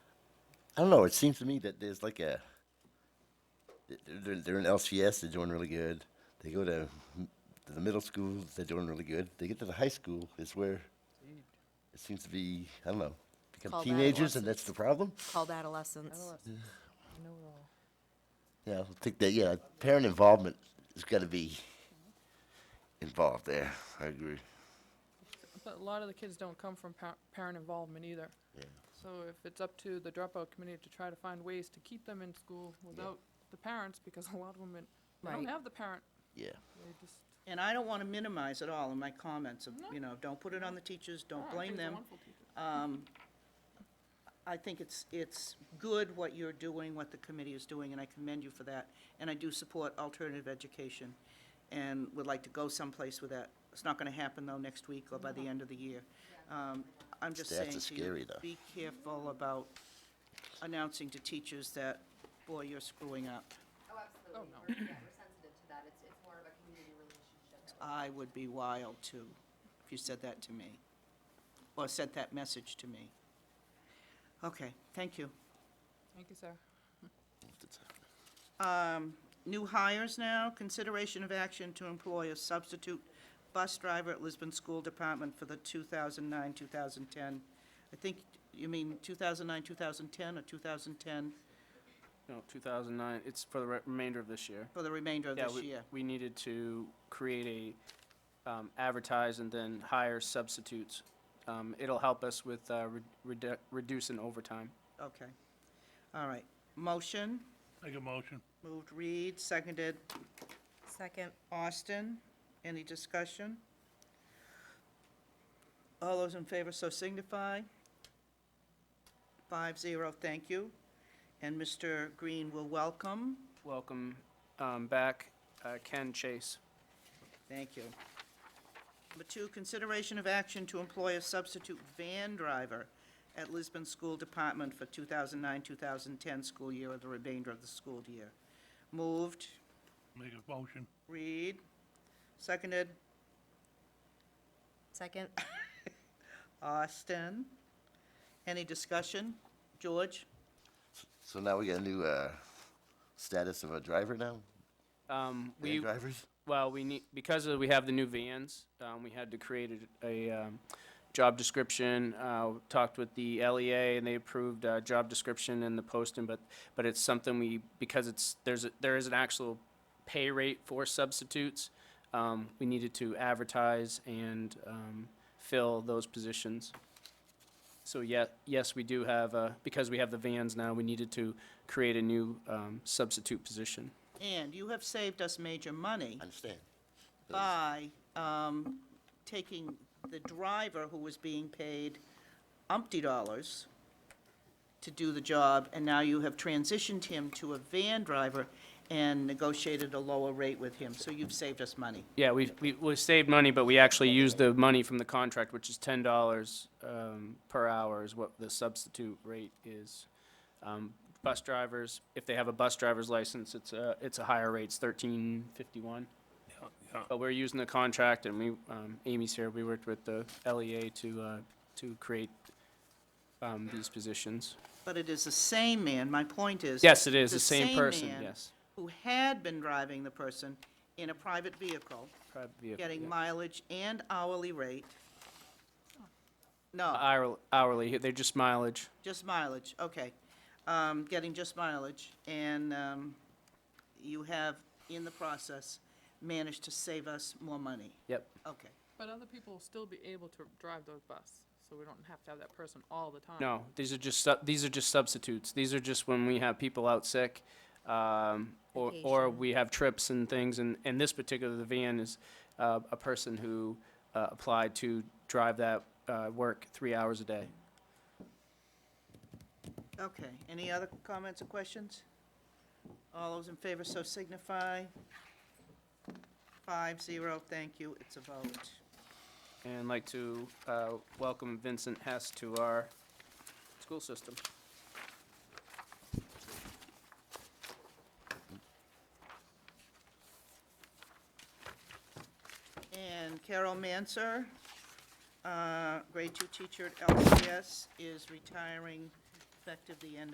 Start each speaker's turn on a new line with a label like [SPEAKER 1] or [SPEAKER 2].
[SPEAKER 1] I don't know. It seems to me that there's like a they're, they're, they're in LCS. They're doing really good. They go to, m- to the middle school. They're doing really good. They get to the high school. It's where it seems to be. I don't know. Become
[SPEAKER 2] Called
[SPEAKER 1] teenagers, and that's the problem.
[SPEAKER 2] called adolescence.
[SPEAKER 3] Adolescents. I know it all.
[SPEAKER 1] Yeah, I think that. Yeah, parent involvement has got to be involved there. I agree.
[SPEAKER 3] But a lot of the kids don't come from par- parent involvement either.
[SPEAKER 1] Yeah.
[SPEAKER 3] So if it's up to the dropout committee to try to find ways to keep them in school without the parents, because a lot of them, they don't
[SPEAKER 2] Right.
[SPEAKER 3] have the parent,
[SPEAKER 1] Yeah.
[SPEAKER 3] they just.
[SPEAKER 4] And I don't want to minimize at all in my comments of, you know, don't put it on the teachers,
[SPEAKER 3] Oh, I
[SPEAKER 4] don't
[SPEAKER 3] think
[SPEAKER 4] blame
[SPEAKER 3] they're
[SPEAKER 4] them.
[SPEAKER 3] wonderful teachers.
[SPEAKER 4] Um, I think it's, it's good what you're doing, what the committee is doing, and I commend you for that. And I do support alternative education and would like to go someplace with that. It's not going to happen, though, next week or by the end of the year. Um, I'm just saying
[SPEAKER 1] Stats are
[SPEAKER 4] to you,
[SPEAKER 1] scary, though.
[SPEAKER 4] Be careful about announcing to teachers that, boy, you're screwing up.
[SPEAKER 5] Oh, absolutely.
[SPEAKER 3] Oh, no.
[SPEAKER 5] We're, yeah, we're sensitive to that. It's, it's more of a community relationship.
[SPEAKER 4] I would be wild, too, if you said that to me, or sent that message to me. Okay, thank you.
[SPEAKER 3] Thank you, sir.
[SPEAKER 4] Um, New hires now, consideration of action to employ a substitute bus driver at Lisbon School Department for the 2009, 2010. I think, you mean 2009, 2010, or 2010
[SPEAKER 6] No, 2009, it's for the re- remainder of this year.
[SPEAKER 4] for the remainder of
[SPEAKER 6] Yeah,
[SPEAKER 4] this
[SPEAKER 6] we-
[SPEAKER 4] year?
[SPEAKER 6] We needed to create a, um, advertise and then hire substitutes. Um, It'll help us with uh, re- redu- reducing overtime.
[SPEAKER 4] Okay, all right. Motion,
[SPEAKER 7] Make a motion.
[SPEAKER 4] moved Reed, seconded
[SPEAKER 2] Second.
[SPEAKER 4] Austin. Any discussion? All those in favor so signify. Five zero, thank you. And Mr. Green will welcome.
[SPEAKER 6] Welcome um, back, uh, Ken Chase.
[SPEAKER 4] Thank you. Number two, consideration of action to employ a substitute van driver at Lisbon School Department for 2009-2010 school year or the remainder of the school year. Moved,
[SPEAKER 7] Make a motion.
[SPEAKER 4] Reed. Seconded,
[SPEAKER 2] Second.
[SPEAKER 4] Austin. Any discussion? George?
[SPEAKER 1] So now we got a new uh, status of a driver now.
[SPEAKER 6] Um,
[SPEAKER 1] Van
[SPEAKER 6] we-
[SPEAKER 1] drivers.
[SPEAKER 6] Well, we need, because of- we have the new vans, um, we had to create a, a, um, job description. Uh, talked with the LEA and they approved, uh, job description and the posting, but, but it's something we, because it's, there's, a- there is an actual pay rate for substitutes. Um, we needed to advertise and, um, fill those positions. So yeah, yes, we do have, uh, because we have the vans now, we needed to create a new, um, substitute position.
[SPEAKER 4] And you have saved us major money
[SPEAKER 1] I understand.
[SPEAKER 4] by um, taking the driver who was being paid umpty dollars to do the job, and now you have transitioned him to a van driver and negotiated a lower rate with him, so you've saved us money.
[SPEAKER 6] Yeah, we, we, we saved money, but we actually used the money from the contract, which is ten dollars, um, per hour is what the substitute rate is. Um, bus drivers, if they have a bus driver's license, it's a, it's a higher rate, it's thirteen fifty-one.
[SPEAKER 7] yeah.
[SPEAKER 6] But we're using the contract and we, um, Amy's here, we worked with the LEA to, uh, to create, um, these positions.
[SPEAKER 4] But it is the same man, my point is.
[SPEAKER 6] Yes, it is, the same person,
[SPEAKER 4] man
[SPEAKER 6] yes.
[SPEAKER 4] Who had been driving the person in a private vehicle,
[SPEAKER 6] Private vehicle,
[SPEAKER 4] getting
[SPEAKER 6] yeah.
[SPEAKER 4] mileage and hourly rate. No.
[SPEAKER 6] Hourl- Hourly, they're just mileage.
[SPEAKER 4] Just mileage, okay. Um, Getting just mileage, and um, you have, in the process, managed to save us more money.
[SPEAKER 6] Yep,
[SPEAKER 4] Okay,
[SPEAKER 3] But other people will still be able to drive those bus, so we don't have to have that person all the time.
[SPEAKER 6] No, these are just, sub- these are just substitutes. These are just when we have people out sick, um, or, or
[SPEAKER 2] Vacation.
[SPEAKER 6] we have trips and things, and, and this particular, the van is, uh, a person who, uh, applied to drive that, uh, work three hours a day.
[SPEAKER 4] okay. Any other comments or questions? All those in favor so signify. Five, zero, thank you, it's a vote.
[SPEAKER 6] And I'd like to, uh, welcome Vincent Hess to our school system.
[SPEAKER 4] And Carol Manser, uh, grade two teacher at LCS, is retiring effective the end